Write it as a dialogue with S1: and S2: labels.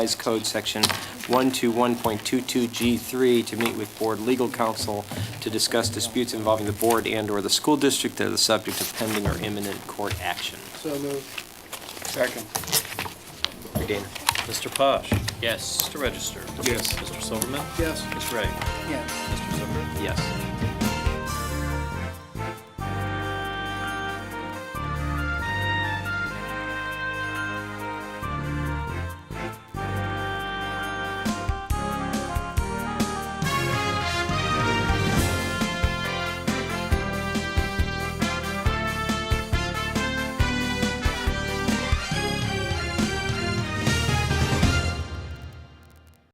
S1: Revised Code Section 121.22G3 to meet with board legal counsel to discuss disputes involving the board and/or the school district that are the subject of pending or imminent court action.
S2: So moved. Second.
S1: Mr. Gainer.
S3: Mr. Posh.
S4: Yes.
S3: Mr. Register.
S2: Yes.
S3: Mr. Silverman.
S2: Yes.
S3: Ms. Wright.
S2: Yes.
S3: Mr. Zucker.
S1: Yes.